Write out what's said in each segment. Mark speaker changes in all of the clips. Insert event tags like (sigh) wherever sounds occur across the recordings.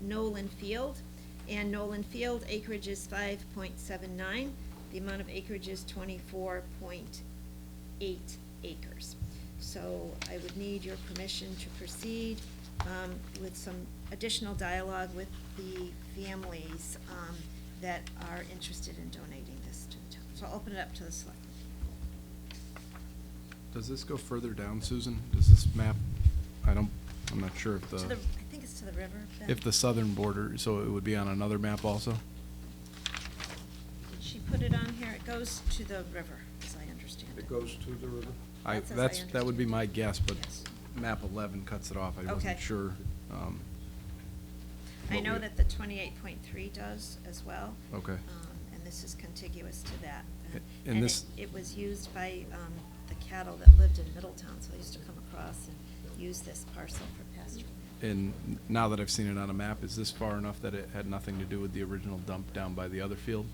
Speaker 1: Nolan Field, and Nolan Field acreage is five point seven nine. The amount of acreage is twenty-four point eight acres. So I would need your permission to proceed um, with some additional dialogue with the families um, that are interested in donating this to the town. So I'll open it up to the select.
Speaker 2: Does this go further down, Susan? Does this map, I don't, I'm not sure if
Speaker 1: To the,
Speaker 2: the,
Speaker 1: I think it's to the river. Beth.
Speaker 2: if the southern border, so it would be on another map also?
Speaker 1: Did she put it on here? It goes to the river, as I understand it.
Speaker 3: It goes to the river.
Speaker 2: I,
Speaker 1: That's as I
Speaker 2: that's, that would be my guess, but
Speaker 1: Yes.
Speaker 2: map eleven cuts it off. I
Speaker 1: Okay.
Speaker 2: wasn't sure. um,
Speaker 1: I
Speaker 2: what
Speaker 1: know
Speaker 2: we-
Speaker 1: that the twenty-eight point three does as well.
Speaker 2: Okay.
Speaker 1: Um, And this is contiguous to that.
Speaker 2: A- and
Speaker 1: it-
Speaker 2: this-
Speaker 1: It was used by um, the cattle that lived in Middletown, so I used to come across and use this parcel for pasture.
Speaker 2: And now that I've seen it on a map, is this far enough that it had nothing to do with the original dump down by the other field?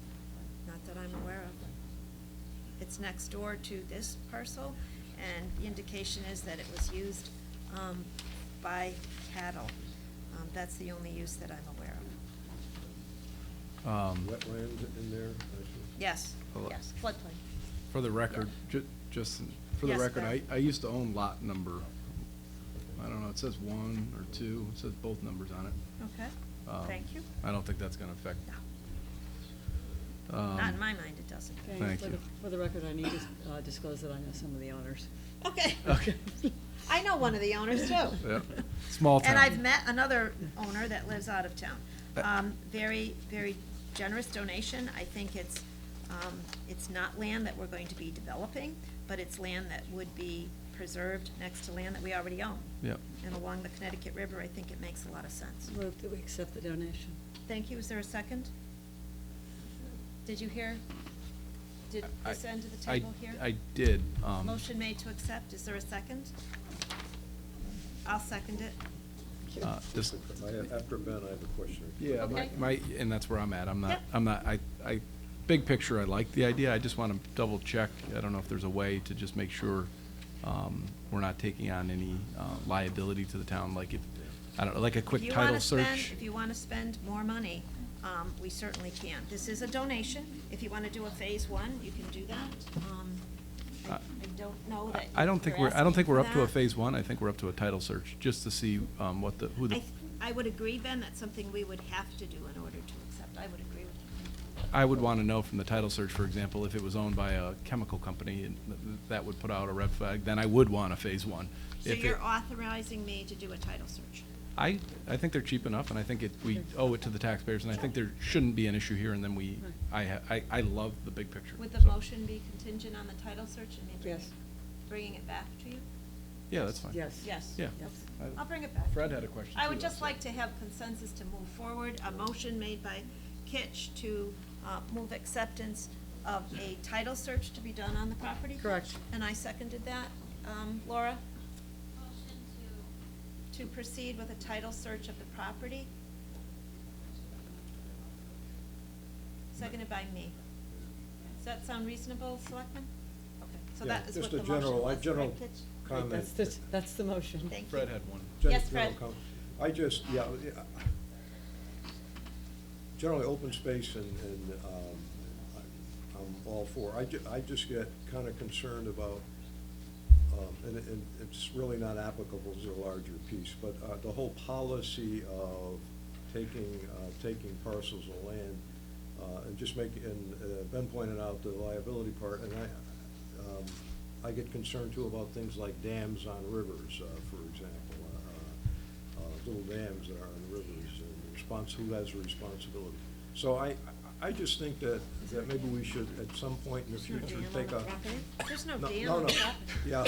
Speaker 1: Not that I'm aware of. It's next door to this parcel, and the indication is that it was used um, by cattle. Um, That's the only use that I'm aware of.
Speaker 2: Um,
Speaker 3: Wetlands in there. I see.
Speaker 1: Yes,
Speaker 2: Hello.
Speaker 1: yes, floodplain.
Speaker 2: For the record, ju- just, for the
Speaker 1: Yes,
Speaker 2: record, I,
Speaker 1: Beth.
Speaker 2: I used to own lot number, I don't know, it says one or two, it says both numbers on it.
Speaker 1: Okay,
Speaker 2: Um,
Speaker 1: thank you.
Speaker 2: I don't think that's gonna affect.
Speaker 1: No,
Speaker 2: um,
Speaker 1: Not in my mind, it doesn't.
Speaker 4: Okay,
Speaker 2: Thank
Speaker 4: for the-
Speaker 2: you.
Speaker 4: For the record, I need to uh, disclose that I know some of the owners.
Speaker 1: Okay.
Speaker 2: Okay.
Speaker 1: (laughs) I know one of the owners too.
Speaker 2: (laughs) Yeah, small town. Uh,
Speaker 1: And I've met another owner that lives out of town. Um, very, very generous donation. I think it's, um, it's not land that we're going to be developing, but it's land that would be preserved next to land that we already own.
Speaker 2: Yep.
Speaker 1: And along the Connecticut River, I think it makes a lot of sense.
Speaker 4: Move that we accept the donation.
Speaker 1: Thank you. Is there a second? Did you hear? Did
Speaker 2: I-
Speaker 1: this end of the
Speaker 2: I-
Speaker 1: table here?
Speaker 2: I did, um.
Speaker 1: Motion made to accept. Is there a second? I'll second it.
Speaker 2: uh, Just,
Speaker 3: I- After Ben, I have a question.
Speaker 2: yeah, my,
Speaker 1: Okay.
Speaker 2: my, and that's where I'm at, I'm not,
Speaker 1: Yep.
Speaker 2: I'm not, I, I, big picture, I like the idea, I just wanna double check, I don't know if there's a way to just make sure, um, we're not taking on any uh, liability to the town, like if, I don't know, like a
Speaker 1: If
Speaker 2: quick
Speaker 1: you
Speaker 2: title
Speaker 1: wanna spend-
Speaker 2: search.
Speaker 1: If you want to spend more money, um, we certainly can. This is a donation. If you want to do a phase one, you can do that. Um, I
Speaker 2: Uh,
Speaker 1: I don't know that.
Speaker 2: I- I don't think we're, I don't think we're up to a phase
Speaker 1: one.
Speaker 2: one, I think we're up to a title search, just to see, um, what the, who the.
Speaker 1: I, th- I would agree, Ben, that's something we would have to do in order to accept. I would agree with you.
Speaker 2: I would want to know from the title search, for example, if it was owned by a chemical company, and th- th- that would put out a red flag, then I would want a phase one.
Speaker 1: So
Speaker 2: If it-
Speaker 1: you're authorizing me to do a title search?
Speaker 2: I, I think they're cheap enough, and I think it, we owe it to the taxpayers, and I think there shouldn't be an issue here, and then we, I, ha- I, I love the big picture.
Speaker 1: Would the
Speaker 2: so-
Speaker 1: motion be contingent on the title search and me bringing,
Speaker 4: Yes.
Speaker 1: bringing it back to you?
Speaker 2: Yeah, that's fine.
Speaker 4: Yes.
Speaker 1: Yes.
Speaker 2: Yeah.
Speaker 1: Yes.
Speaker 2: I-
Speaker 1: I'll bring it back.
Speaker 2: Fred had a question,
Speaker 1: I
Speaker 2: too,
Speaker 1: would just
Speaker 2: actually.
Speaker 1: like to have consensus to move forward, a motion made by Kitch to uh, move acceptance of a title search to be done on the property.
Speaker 4: Correct.
Speaker 1: And I seconded that. Um, Laura,
Speaker 5: Motion to,
Speaker 1: to proceed with a title search of the property? Seconded by me. Does that sound reasonable, Selectman? Okay, so
Speaker 3: Yeah,
Speaker 1: that is what the
Speaker 3: Just a
Speaker 1: motion
Speaker 3: general, I
Speaker 1: was,
Speaker 3: general
Speaker 1: right, Kitch?
Speaker 3: comment.
Speaker 4: That's, the- that's the motion.
Speaker 1: Thank you.
Speaker 2: Fred had one.
Speaker 3: Gen-
Speaker 1: Yes,
Speaker 3: general
Speaker 1: Fred.
Speaker 3: comment. I just, yeah, yeah, generally, open space and, and, um, I- I'm all for. I ju, I just get kinda concerned about, um, and, and it's really not applicable to the larger piece, but, uh, the whole policy of taking, uh, taking parcels of land, uh, and just making, and uh, Ben pointed out the liability part, and I, um, I get concerned too about things like dams on rivers, uh, for example. uh, uh, Little dams that are on rivers, and response, who has the responsibility? So I, I just think that, that maybe we should at some point in the
Speaker 1: There's no
Speaker 3: future
Speaker 1: dam on
Speaker 3: take
Speaker 1: the
Speaker 3: a.
Speaker 1: property? There's no dam
Speaker 3: no,
Speaker 1: on the
Speaker 3: no.
Speaker 1: property.
Speaker 3: Yeah,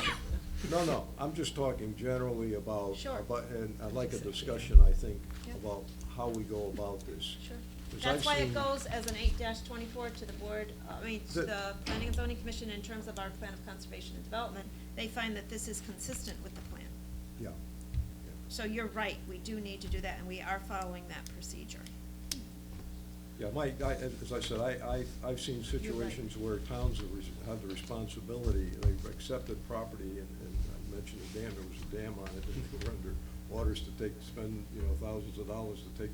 Speaker 3: no, no, I'm just talking generally about.
Speaker 1: Sure.
Speaker 3: about- And I'd like a discussion, I think,
Speaker 1: Yeah.
Speaker 3: about how we go about this.
Speaker 1: Sure.
Speaker 3: 'Cause
Speaker 1: That's
Speaker 3: I've
Speaker 1: why it
Speaker 3: seen-
Speaker 1: goes as an eight twenty-four to the board, uh, I mean, to
Speaker 3: The-
Speaker 1: the Planning and Zoning Commission in terms of our plan of conservation and development. They find that this is consistent with the plan.
Speaker 3: Yeah.
Speaker 1: So you're right, we do need to do that, and we are following that procedure.
Speaker 3: Yeah, my, I, as I said, I, I, I've seen
Speaker 1: right.
Speaker 3: situations where towns have res- have the responsibility, they've accepted property, and, and I mentioned a dam, there was a dam on it, and they were under Waters to take, spend, you know, thousands of dollars to take